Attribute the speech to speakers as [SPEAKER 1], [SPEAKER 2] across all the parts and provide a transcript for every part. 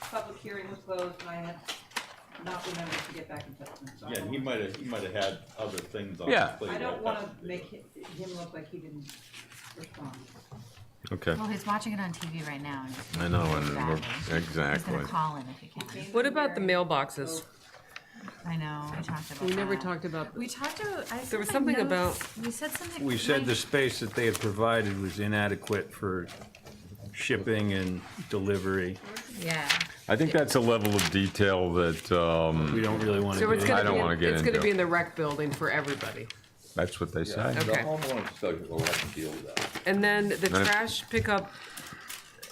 [SPEAKER 1] public hearing was closed, and I had not remembered to get back in touch with him, so I
[SPEAKER 2] Yeah, he
[SPEAKER 1] don't,
[SPEAKER 2] might have, he might have had other things on his
[SPEAKER 3] Yeah.
[SPEAKER 2] plate.
[SPEAKER 1] I don't
[SPEAKER 2] right
[SPEAKER 1] wanna
[SPEAKER 2] after the-
[SPEAKER 1] make hi- him look like he didn't respond.
[SPEAKER 3] Okay,
[SPEAKER 4] Well, he's watching it on TV right now. and just-
[SPEAKER 3] I know, and
[SPEAKER 4] Exactly.
[SPEAKER 3] we're,
[SPEAKER 4] He's gonna
[SPEAKER 3] exactly.
[SPEAKER 4] call in if he can.
[SPEAKER 5] What about the mailboxes?
[SPEAKER 4] I know, we talked about
[SPEAKER 5] We never
[SPEAKER 4] that.
[SPEAKER 5] talked about,
[SPEAKER 4] We talked about, I
[SPEAKER 5] There
[SPEAKER 4] sent
[SPEAKER 5] was
[SPEAKER 4] my
[SPEAKER 5] something
[SPEAKER 4] notes. We said something.
[SPEAKER 6] We said
[SPEAKER 4] like-
[SPEAKER 6] the space that they had provided was inadequate for shipping and delivery.
[SPEAKER 4] Yeah,
[SPEAKER 3] I think that's a level of detail that, um,
[SPEAKER 6] We don't really want to
[SPEAKER 5] so
[SPEAKER 6] do
[SPEAKER 5] it's
[SPEAKER 3] I
[SPEAKER 6] that.
[SPEAKER 3] don't
[SPEAKER 5] gonna
[SPEAKER 3] wanna
[SPEAKER 5] be,
[SPEAKER 3] get
[SPEAKER 5] it's gonna
[SPEAKER 3] into
[SPEAKER 5] be
[SPEAKER 3] it.
[SPEAKER 5] in the rec building for everybody.
[SPEAKER 3] that's what they say.
[SPEAKER 2] The
[SPEAKER 5] Okay.
[SPEAKER 2] homeowners association will have to deal with that.
[SPEAKER 5] And then the
[SPEAKER 3] None of-
[SPEAKER 5] trash pickup,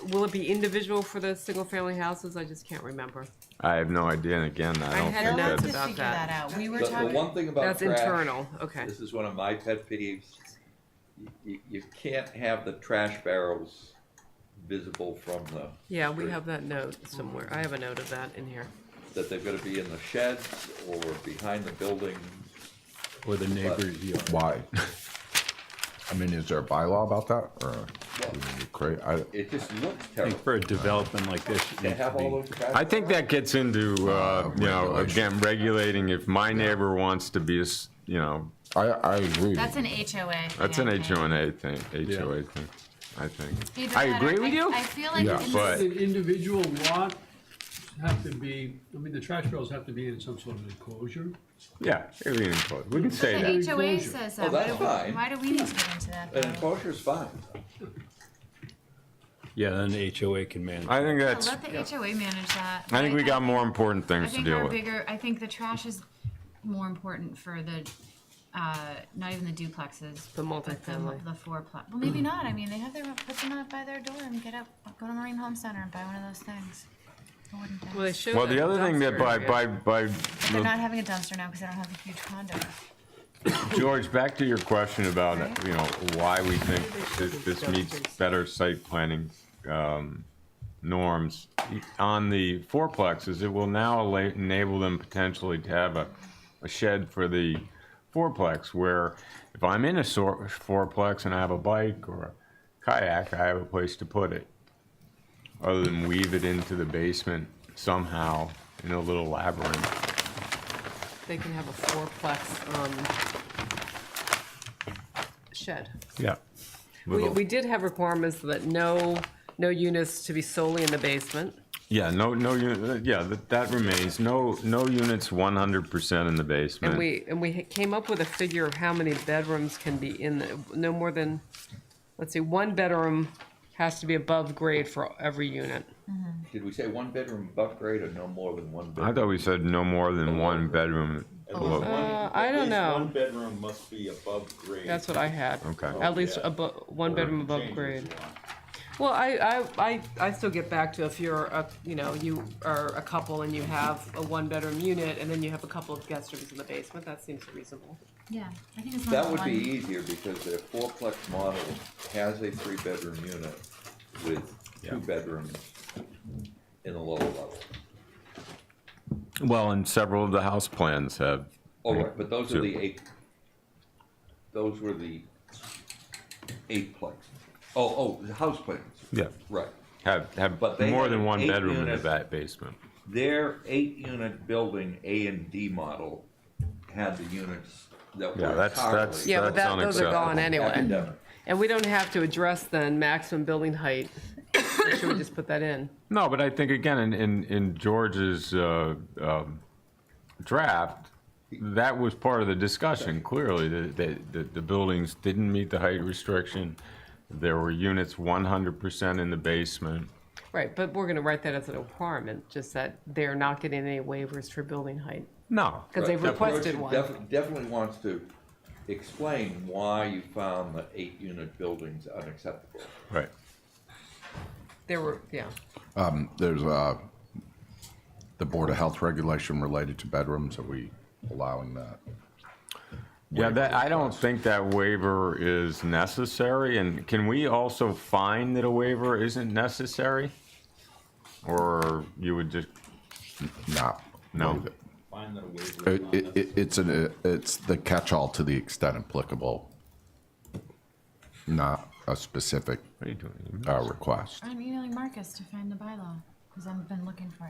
[SPEAKER 5] will it be individual for the single-family houses? I just can't remember.
[SPEAKER 3] I have no idea, and again, I
[SPEAKER 5] I
[SPEAKER 3] don't
[SPEAKER 5] had
[SPEAKER 3] think
[SPEAKER 4] we'll have
[SPEAKER 5] notes
[SPEAKER 4] to
[SPEAKER 3] that's,
[SPEAKER 4] figure
[SPEAKER 5] about that.
[SPEAKER 4] that out. We were
[SPEAKER 2] The, the one
[SPEAKER 4] talking,
[SPEAKER 2] thing about
[SPEAKER 5] That's
[SPEAKER 2] trash.
[SPEAKER 5] internal, okay.
[SPEAKER 2] This is one of my pet peeves. You- You, you can't have the trash barrels visible from the.
[SPEAKER 5] Yeah, we
[SPEAKER 2] street.
[SPEAKER 5] have that note somewhere. I have a note of that in here.
[SPEAKER 2] That they've gotta be in the sheds or behind the building.
[SPEAKER 6] Or the neighbor's yard.
[SPEAKER 7] Why? I mean, is there a bylaw about that or? do we need cra- I,
[SPEAKER 2] It just looks
[SPEAKER 6] I think
[SPEAKER 2] terrible
[SPEAKER 6] for a development like this, it
[SPEAKER 2] to
[SPEAKER 6] needs to
[SPEAKER 2] have all those
[SPEAKER 6] be.
[SPEAKER 2] trash.
[SPEAKER 3] I think that gets into, uh, you know,
[SPEAKER 7] Regulation.
[SPEAKER 3] again, regulating if my neighbor wants to be, a s- you know,
[SPEAKER 7] I, I agree.
[SPEAKER 4] that's an HOA.
[SPEAKER 3] that's an
[SPEAKER 4] thing, I think.
[SPEAKER 3] HOA thing, HOA thing, I think.
[SPEAKER 4] Either
[SPEAKER 3] I
[SPEAKER 4] that or
[SPEAKER 3] agree with you,
[SPEAKER 4] I feel like.
[SPEAKER 7] Yeah,
[SPEAKER 4] it's-
[SPEAKER 3] but-
[SPEAKER 8] An individual lot have to be, I mean, the trash barrels have to be in some sort of enclosure.
[SPEAKER 3] yeah, it'd be important. we can say that.
[SPEAKER 4] The HOA says that.
[SPEAKER 2] Oh, that's
[SPEAKER 4] Why do we-
[SPEAKER 2] fine. Hmm.
[SPEAKER 4] Why do we need to get into that?
[SPEAKER 2] An
[SPEAKER 4] though?
[SPEAKER 2] enclosure's fine.
[SPEAKER 6] Yeah, then the HOA can manage.
[SPEAKER 3] I think
[SPEAKER 4] Yeah,
[SPEAKER 3] that's,
[SPEAKER 4] Let the HOA manage that.
[SPEAKER 3] I think we got more important
[SPEAKER 4] I
[SPEAKER 3] things to
[SPEAKER 4] think
[SPEAKER 3] deal
[SPEAKER 4] our
[SPEAKER 3] with.
[SPEAKER 4] bigger, I think the trash is more important for the, uh, not even the duplexes.
[SPEAKER 5] The
[SPEAKER 4] But the,
[SPEAKER 5] multifamily.
[SPEAKER 4] the four plot, well, maybe not, I mean, they have their, put them out by their door and get up, go to Marine Home Center and buy one of those things. The wooden
[SPEAKER 5] Well, they
[SPEAKER 4] things.
[SPEAKER 5] showed.
[SPEAKER 3] Well, the other thing that
[SPEAKER 5] dumpster
[SPEAKER 3] by, by,
[SPEAKER 5] area.
[SPEAKER 3] by,
[SPEAKER 4] But they're not having a dumpster now because they don't have the huge condo.
[SPEAKER 3] George, back to your question about,
[SPEAKER 4] Right.
[SPEAKER 3] you know, why we think that this meets better site planning um, norms. On the fourplexes, it will now la- enable them potentially to have a a shed for the fourplex, where if I'm in a sor- fourplex and I have a bike or a kayak, I have a place to put it, other than weave it into the basement somehow in a little labyrinth.
[SPEAKER 5] They can have a fourplex, um, shed.
[SPEAKER 3] Yeah.
[SPEAKER 5] We, we did have requirements that no, no units to be solely in the basement.
[SPEAKER 3] Yeah, no, no, uni- yeah, that, that remains, no, no units one hundred percent in the basement.
[SPEAKER 5] And we, and we came up with a figure of how many bedrooms can be in, the no more than, let's see, one bedroom has to be above grade for every unit.
[SPEAKER 2] Did we say one bedroom above grade or no more than
[SPEAKER 3] I
[SPEAKER 2] one bedroom?
[SPEAKER 3] thought we said no more than one bedroom, below-
[SPEAKER 5] Uh, I don't know.
[SPEAKER 2] One bedroom must be above grade.
[SPEAKER 5] That's what I had.
[SPEAKER 3] Okay.
[SPEAKER 5] At least
[SPEAKER 2] Yeah.
[SPEAKER 5] above, one bedroom above
[SPEAKER 2] Changes
[SPEAKER 5] grade.
[SPEAKER 2] you want.
[SPEAKER 5] Well, I, I, I, I still get back to if you're a, you know, you are a couple and you have a one-bedroom unit and then you have a couple of guest rooms in the basement, that seems reasonable.
[SPEAKER 4] Yeah, I think it's not
[SPEAKER 2] That
[SPEAKER 4] the
[SPEAKER 2] would be
[SPEAKER 4] one,
[SPEAKER 2] easier because their fourplex model has a three-bedroom unit with two bedrooms in the lower level.
[SPEAKER 3] well, and several of the house plans have.
[SPEAKER 2] Oh, right, but those are
[SPEAKER 3] Two.
[SPEAKER 2] the eight, those were the eightplex. Oh, oh, the house plans,
[SPEAKER 3] Yeah.
[SPEAKER 2] right.
[SPEAKER 3] Have, have
[SPEAKER 2] But they
[SPEAKER 3] more
[SPEAKER 2] had
[SPEAKER 3] than one
[SPEAKER 2] eight
[SPEAKER 3] bedroom in the
[SPEAKER 2] units.
[SPEAKER 3] back basement.
[SPEAKER 2] Their eight-unit building A and D model had the units that were
[SPEAKER 3] Yeah, that's- that's-
[SPEAKER 2] entirely
[SPEAKER 5] Yeah, but that, those are gone anyway.
[SPEAKER 2] academic.
[SPEAKER 5] And we don't have to address then maximum building height. Or Should we just put that in?
[SPEAKER 3] No, but I think again, in, in, in George's, uh, um, draft, that was part of the discussion, clearly, that, that, that the buildings didn't meet the height restriction. There were units one hundred percent in the basement.
[SPEAKER 5] Right, but we're gonna write that as a requirement, just that they're not getting any waivers for building height.
[SPEAKER 3] No.
[SPEAKER 5] Because they've
[SPEAKER 2] Right, the approach
[SPEAKER 5] requested one.
[SPEAKER 2] defi- Definitely wants to explain why you found the eight-unit buildings unacceptable.
[SPEAKER 3] Right.
[SPEAKER 5] There were, yeah.
[SPEAKER 7] Um, there's, uh, the Board of Health regulation related to bedrooms. Are we allowing that?
[SPEAKER 3] Yeah, that, I don't think that waiver is necessary, and can we also find that a waiver isn't necessary? Or you would just,
[SPEAKER 7] No.
[SPEAKER 3] No.
[SPEAKER 7] leave it.
[SPEAKER 2] Find that a waiver is
[SPEAKER 7] It,
[SPEAKER 2] not
[SPEAKER 7] it, it- it's an, it's the catch-all to the extent applicable. Not a specific,
[SPEAKER 3] what are you doing?
[SPEAKER 7] uh, request.
[SPEAKER 4] I'm emailing Marcus to find the bylaw, because I've been looking for it.